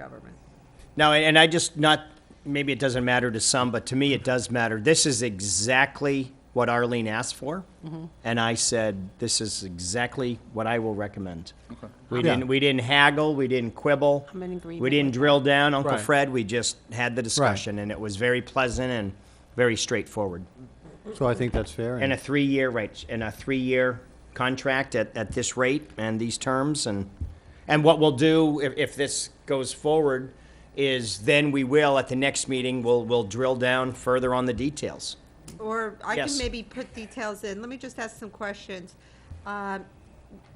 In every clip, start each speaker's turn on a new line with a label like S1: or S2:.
S1: government.
S2: No, and and I just not, maybe it doesn't matter to some, but to me it does matter. This is exactly what Arlene asked for.
S1: Mm-hmm.
S2: And I said, this is exactly what I will recommend. We
S3: Yeah.
S2: didn't, we didn't haggle, we didn't quibble.
S1: I'm in agreement
S2: We didn't
S1: with
S2: drill down Uncle
S3: Right.
S2: Fred, we just had the discussion and it was very pleasant and very straightforward.
S3: So I think that's fair.
S2: And a three-year, right, and a three-year contract at, at this rate and these terms, and, and what we'll do if, if this goes forward is then we will, at the next meeting, we'll, we'll drill down further on the details.
S1: Or I can
S2: Yes.
S1: maybe put details in. Let me just ask some questions. Um,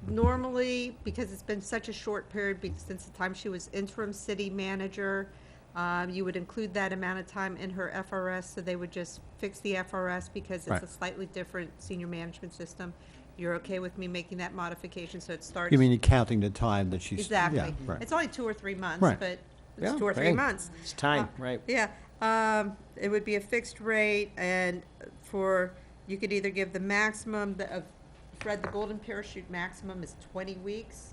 S1: Normally, because it's been such a short period, be- since the time she was interim city manager, um, you would include that amount of time in her FRS, so they would just fix the FRS because it's
S3: Right.
S1: a slightly different senior management system. You're okay with me making that modification, so it starts?
S3: You mean counting the time that she's. yeah,
S1: Exactly.
S3: right.
S1: It's only two or three months,
S3: Right.
S1: but
S2: Yeah,
S1: it's two or three
S2: right.
S1: months.
S2: It's time, right.
S1: Yeah, um, it would be a fixed rate and for, you could either give the maximum, the, of, Fred, the golden parachute maximum is twenty weeks.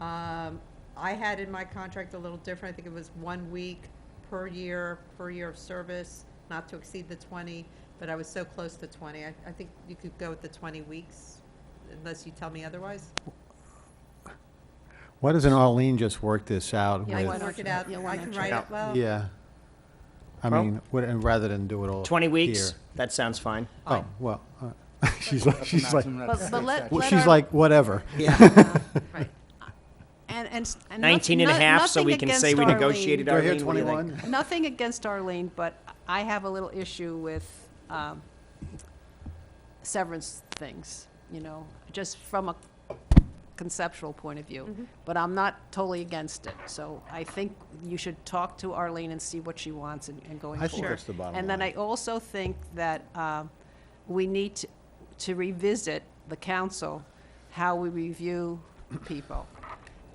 S1: Um, I had in my contract a little different, I think it was one week per year, per year of service, not to exceed the twenty, but I was so close to twenty, I, I think you could go with the twenty weeks, unless you tell me otherwise.
S3: Why doesn't Arlene just work this out
S1: I can
S3: with,
S1: work it out,
S4: Yeah, why
S1: I
S4: not
S1: can
S4: try
S1: write
S2: it
S1: it, well,
S3: yeah? I
S2: Well-
S3: mean, what- and rather than do it all.
S2: Twenty weeks,
S3: here.
S2: that sounds fine.
S3: Oh, well, uh, she's like, she's like,
S4: But, but let,
S3: well,
S4: let
S3: she's
S4: our-
S3: like, whatever.
S1: right.
S4: and, and, s- and noth-
S2: Nineteen and a
S4: no-
S2: half, so
S4: nothing
S2: we can say
S4: against
S2: we
S4: Arlene.
S2: negotiated
S3: Do I hear
S2: Arlene, what do you think?
S3: 21?
S4: Nothing against Arlene, but I have a little issue with um, severance things, you know, just from a conceptual point of view. But I'm not totally against it, so I think you should talk to Arlene and see what she wants and and going
S3: I think
S4: forward.
S3: that's the bottom
S4: And then I
S3: line.
S4: also think that um, we need to- to revisit, the council, how we review people.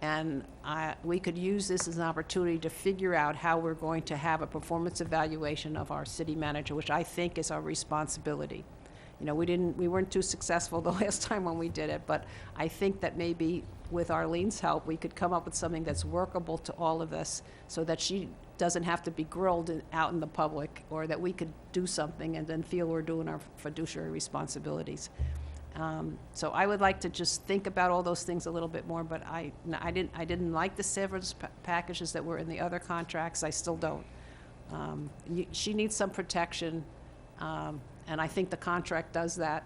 S4: And I, we could use this as an opportunity to figure out how we're going to have a performance evaluation of our city manager, which I think is our responsibility. You know, we didn't, we weren't too successful the last time when we did it, but I think that maybe with Arlene's help, we could come up with something that's workable to all of us so that she doesn't have to be grilled in- out in the public, or that we could do something and then feel we're doing our fiduciary responsibilities. Um, So I would like to just think about all those things a little bit more, but I, no, I didn't, I didn't like the severance pa- packages that were in the other contracts, I still don't. Um, you- She needs some protection, um, and I think the contract does that.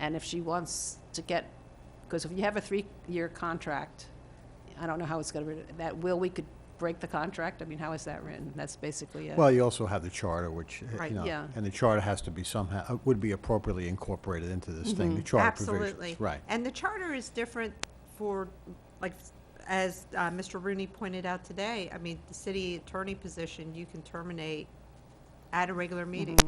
S4: And if she wants to get, because if you have a three-year contract, I don't know how it's going to, that will, we could break the contract? I mean, how is that written? That's basically it.
S3: Well, you also have the charter, which, uh,
S1: Right,
S3: you know,
S4: yeah.
S3: and the charter has to be somehow, uh, would be appropriately incorporated into this thing, the charter provisions.
S1: Mm-hmm. Absolutely.
S3: Right.
S1: And the charter is different for, like, as uh, Mr. Rooney pointed out today, I mean, the city attorney position, you can terminate at a regular meeting.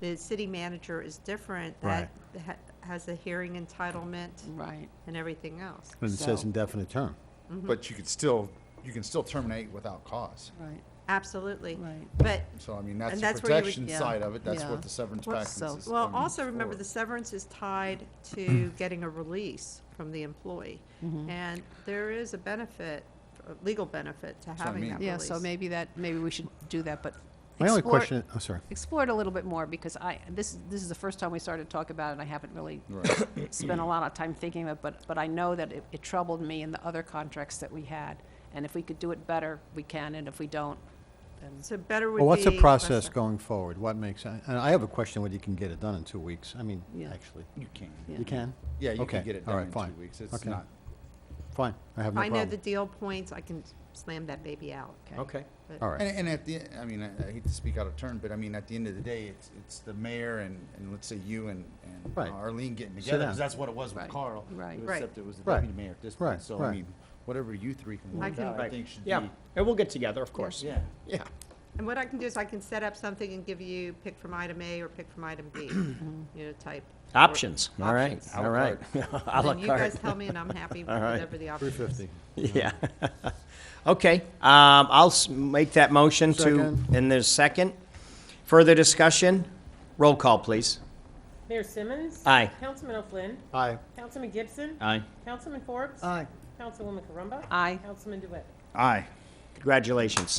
S1: The city manager is different. That ha- has a hearing entitlement
S4: Right.
S1: and everything else.
S3: And it says
S4: So-
S3: indefinite term.
S1: Mm-hmm.
S5: But you could still, you can still terminate without cause.
S4: Right.
S1: Absolutely.
S4: Right.
S1: But,
S5: So I mean, that's
S1: And
S5: the
S1: that's where you would-
S5: protection
S4: yeah,
S5: side of it, that's
S4: yeah.
S5: what the severance
S4: Well,
S5: package
S4: so-
S5: is.
S1: well,
S5: um,
S1: also remember,
S5: for.
S1: the severance is tied to getting a release from the employee. And there is a benefit, a legal benefit to
S5: what I
S1: having
S5: mean.
S1: that release.
S4: Yeah, so maybe that, maybe we should do that, but.
S3: My only
S4: explore-
S3: question, oh, sorry.
S4: Explore it a little bit more, because I, this, this is the first time we started to talk about it, and I haven't really
S5: Right.
S4: spent a lot of time thinking of it, but, but I know that it, it troubled me in the other contracts that we had. And if we could do it better, we can, and if we don't, then.
S1: So better would be.
S3: Well, what's the
S1: less
S3: process
S1: than-
S3: going forward? What makes, and I have a question whether you can get it done in two weeks. I mean,
S4: Yeah.
S3: actually,
S5: You can.
S4: Yeah.
S3: you can?
S5: Yeah, you
S3: Okay,
S5: can get it
S3: all
S5: done
S3: right,
S5: in
S3: fine.
S5: two weeks. It's
S3: Okay,
S5: not,
S3: Fine, I have
S1: If
S3: no
S1: I know
S3: problem.
S1: the deal points, I can slam that baby out.
S2: Okay.
S1: But-
S3: All right,
S5: and, and at the, I mean, I I hate to speak out of turn, but I mean, at the end of the day, it's, it's the mayor and, and let's say you and, and
S3: Right.
S5: Arlene getting
S3: Sit
S5: together,
S3: down.
S5: because that's what it was with
S4: Right.
S5: Carl.
S4: Right.
S1: Right.
S5: Except it was the
S3: Right.
S5: deputy mayor at this
S3: Right,
S5: point, so I
S3: right.
S5: mean, whatever you three can
S1: I
S5: work
S1: can-
S5: out, I
S2: Right.
S5: think should be,
S2: Yeah, and we'll get together, of course.
S5: yeah.
S2: Yeah.
S1: And what I can do is I can set up something and give you pick from item A or pick from item B, you know, type. or-
S2: Options, all right,
S1: options.
S2: all right. À la
S1: And you guys
S2: carte.
S1: tell me and I'm happy with whatever the option
S3: three
S1: is.
S3: fifty.
S2: Yeah. Okay, um, I'll s- make that motion to,
S3: Second.
S2: and there's second. Further discussion? Roll call, please.
S6: Mayor Simmons.
S2: Aye.
S6: Councilman O'Flynn.
S3: Aye.
S6: Councilman Gibson.
S2: Aye.
S6: Councilman Forbes.
S3: Aye.
S6: Councilwoman Carumba.
S4: Aye.
S6: Councilman DeWitt.
S5: Aye.
S2: Congratulations.